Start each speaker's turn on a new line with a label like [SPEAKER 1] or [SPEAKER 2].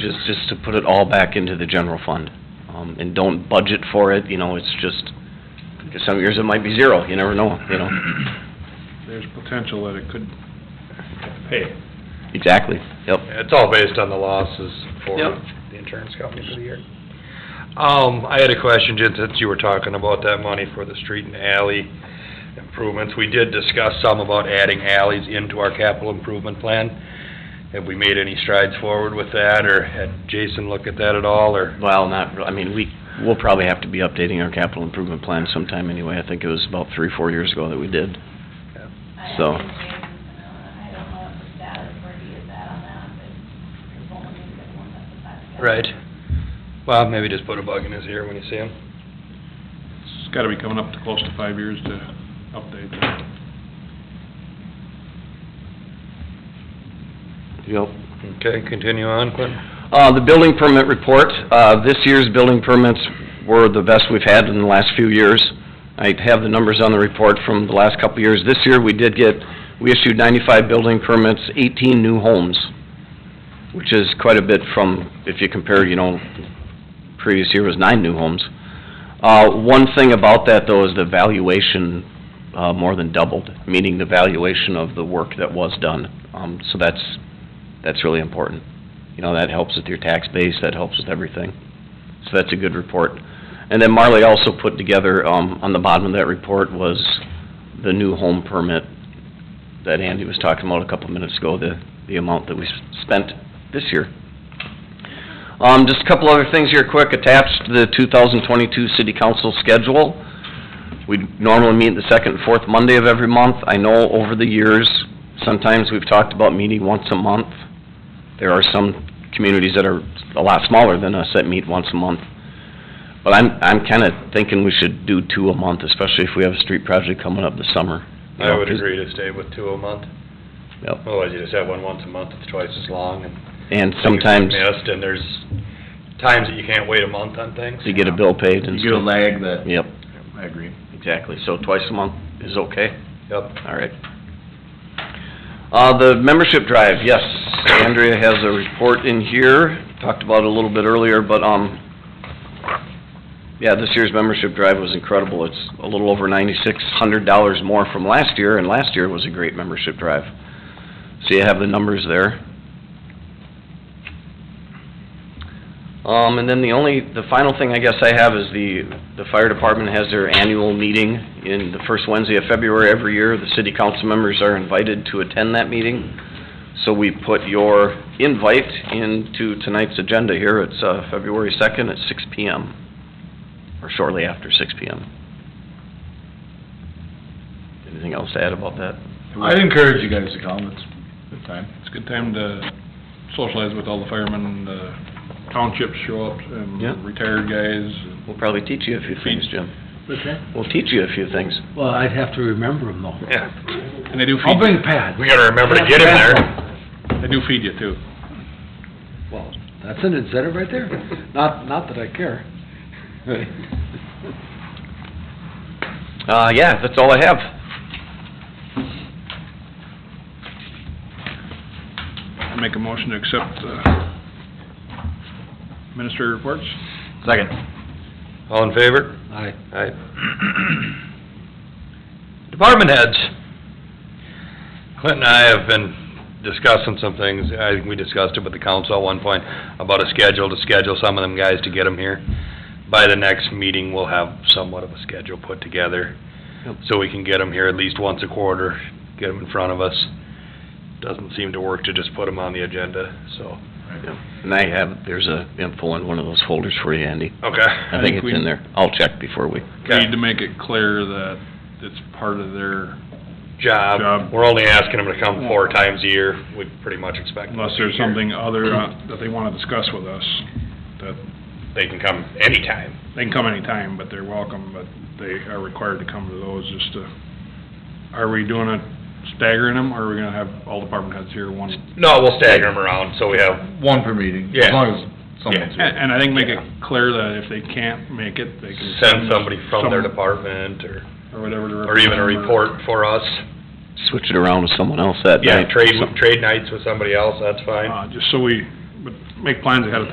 [SPEAKER 1] just, just to put it all back into the general fund. Um, and don't budget for it, you know, it's just, because some years it might be zero, you never know, you know?
[SPEAKER 2] There's potential that it could pay.
[SPEAKER 1] Exactly, yep.
[SPEAKER 3] It's all based on the losses for
[SPEAKER 1] Yep.
[SPEAKER 3] the insurance company for the year. Um, I had a question, Jen, since you were talking about that money for the street and alley improvements. We did discuss some about adding alleys into our capital improvement plan. Have we made any strides forward with that, or had Jason look at that at all, or?
[SPEAKER 1] Well, not, re- I mean, we, we'll probably have to be updating our capital improvement plan sometime anyway. I think it was about three, four years ago that we did. So-
[SPEAKER 4] I think James, uh, I don't know what the status, where he is at on that, but there's only been one that's affected.
[SPEAKER 3] Right. Well, maybe just put a bug in his ear when you see him.
[SPEAKER 2] It's gotta be coming up to close to five years to update that.
[SPEAKER 1] Yep.
[SPEAKER 3] Okay, continue on, Clint.
[SPEAKER 1] Uh, the building permit report, uh, this year's building permits were the best we've had in the last few years. I have the numbers on the report from the last couple of years. This year, we did get, we issued ninety-five building permits, eighteen new homes, which is quite a bit from, if you compare, you know, previous year was nine new homes. Uh, one thing about that, though, is the valuation, uh, more than doubled, meaning the valuation of the work that was done. Um, so that's, that's really important you know, that helps with your tax base, that helps with everything. So that's a good report. And then Marley also put together, um, on the bottom of that report was the new home permit that Andy was talking about a couple minutes ago, the, the amount that we s- spent this year. Um, just a couple other things here quick, attached to the two thousand twenty-two city council schedule. We normally meet the second and fourth Monday of every month. I know over the years, sometimes we've talked about meeting once a month there are some communities that are a lot smaller than us that meet once a month. But I'm, I'm kinda thinking we should do two a month, especially if we have a street project coming up this summer. you
[SPEAKER 3] I
[SPEAKER 1] know,
[SPEAKER 3] would
[SPEAKER 1] 'cause-
[SPEAKER 3] agree to stay with two a month.
[SPEAKER 1] Yep.
[SPEAKER 3] Otherwise, you just have one once a month, it's twice as long, and
[SPEAKER 1] And sometimes
[SPEAKER 3] things missed, and there's times that you can't wait a month on things.
[SPEAKER 1] to get a bill paid and
[SPEAKER 5] You get a
[SPEAKER 1] stuff.
[SPEAKER 5] lag that,
[SPEAKER 1] Yep,
[SPEAKER 5] I agree.
[SPEAKER 1] exactly. So twice a month is okay?
[SPEAKER 3] Yep.
[SPEAKER 1] All right. Uh, the membership drive, yes, Andrea has a report in here, talked about it a little bit earlier, but, um, yeah, this year's membership drive was incredible. It's a little over ninety-six hundred dollars more from last year, and last year was a great membership drive. So you have the numbers there. Um, and then the only, the final thing I guess I have is the, the fire department has their annual meeting in the first Wednesday of February every year. The city council members are invited to attend that meeting. So we put your invite into tonight's agenda here. It's, uh, February second at six P M. Or shortly after six P M. Anything else to add about that?
[SPEAKER 5] I'd encourage you guys to come, it's a good time.
[SPEAKER 2] It's a good time to socialize with all the firemen, the townships show up,
[SPEAKER 1] Yeah.
[SPEAKER 2] and retired guys.
[SPEAKER 1] We'll probably teach you a few things, Jim.
[SPEAKER 6] What's that?
[SPEAKER 1] We'll teach you a few things.
[SPEAKER 6] Well, I'd have to remember them though.
[SPEAKER 3] Yeah,
[SPEAKER 2] And they do
[SPEAKER 6] I'll
[SPEAKER 2] feed,
[SPEAKER 6] bring Pat.
[SPEAKER 3] we gotta remember to get him there.
[SPEAKER 2] they do feed you too.
[SPEAKER 6] Well, that's an incentive right there. Not, not that I care.
[SPEAKER 1] Uh, yeah, that's all I have.
[SPEAKER 2] I Make a motion to accept, uh, ministry reports.
[SPEAKER 5] Second.
[SPEAKER 3] All in favor?
[SPEAKER 6] I,
[SPEAKER 3] Aye. Department heads. Clint and I have been discussing some things, I think we discussed it with the council at one point, about a schedule, to schedule some of them guys to get them here. By the next meeting, we'll have somewhat of a schedule put together,
[SPEAKER 1] Yep.
[SPEAKER 3] so we can get them here at least once a quarter, get them in front of us. Doesn't seem to work to just put them on the agenda, so.
[SPEAKER 1] And I have, there's a info in one of those folders for you, Andy.
[SPEAKER 3] Okay.
[SPEAKER 1] I
[SPEAKER 2] I
[SPEAKER 1] think
[SPEAKER 2] think
[SPEAKER 1] it's
[SPEAKER 2] we-
[SPEAKER 1] in there. I'll check before we,
[SPEAKER 2] We
[SPEAKER 3] Okay.
[SPEAKER 2] need to make it clear that it's part of their,
[SPEAKER 3] Job,
[SPEAKER 2] Job.
[SPEAKER 3] we're only asking them to come four times a year, we pretty much expect them to
[SPEAKER 2] unless
[SPEAKER 3] be
[SPEAKER 2] there's
[SPEAKER 3] here.
[SPEAKER 2] something other uh, that they wanna discuss with us, that
[SPEAKER 3] They can come anytime.
[SPEAKER 2] They can come anytime, but they're welcome, but they are required to come to those just to, are we doing it staggering them, or are we gonna have all department heads here one?
[SPEAKER 3] No, we'll stagger them around, so we have,
[SPEAKER 5] One per meeting,
[SPEAKER 3] Yeah.
[SPEAKER 5] as long as someone's
[SPEAKER 2] And,
[SPEAKER 5] here.
[SPEAKER 2] and I think make it clear that if they can't make it, they can.
[SPEAKER 3] send somebody from their
[SPEAKER 2] some-
[SPEAKER 3] department, or,
[SPEAKER 2] Or whatever. to
[SPEAKER 3] or even a
[SPEAKER 2] represent them,
[SPEAKER 3] report for us.
[SPEAKER 1] switch it around with someone else that
[SPEAKER 3] Yeah,
[SPEAKER 1] night.
[SPEAKER 3] trade, trade nights with somebody else, that's fine.
[SPEAKER 2] Uh, just so we, but make plans ahead of time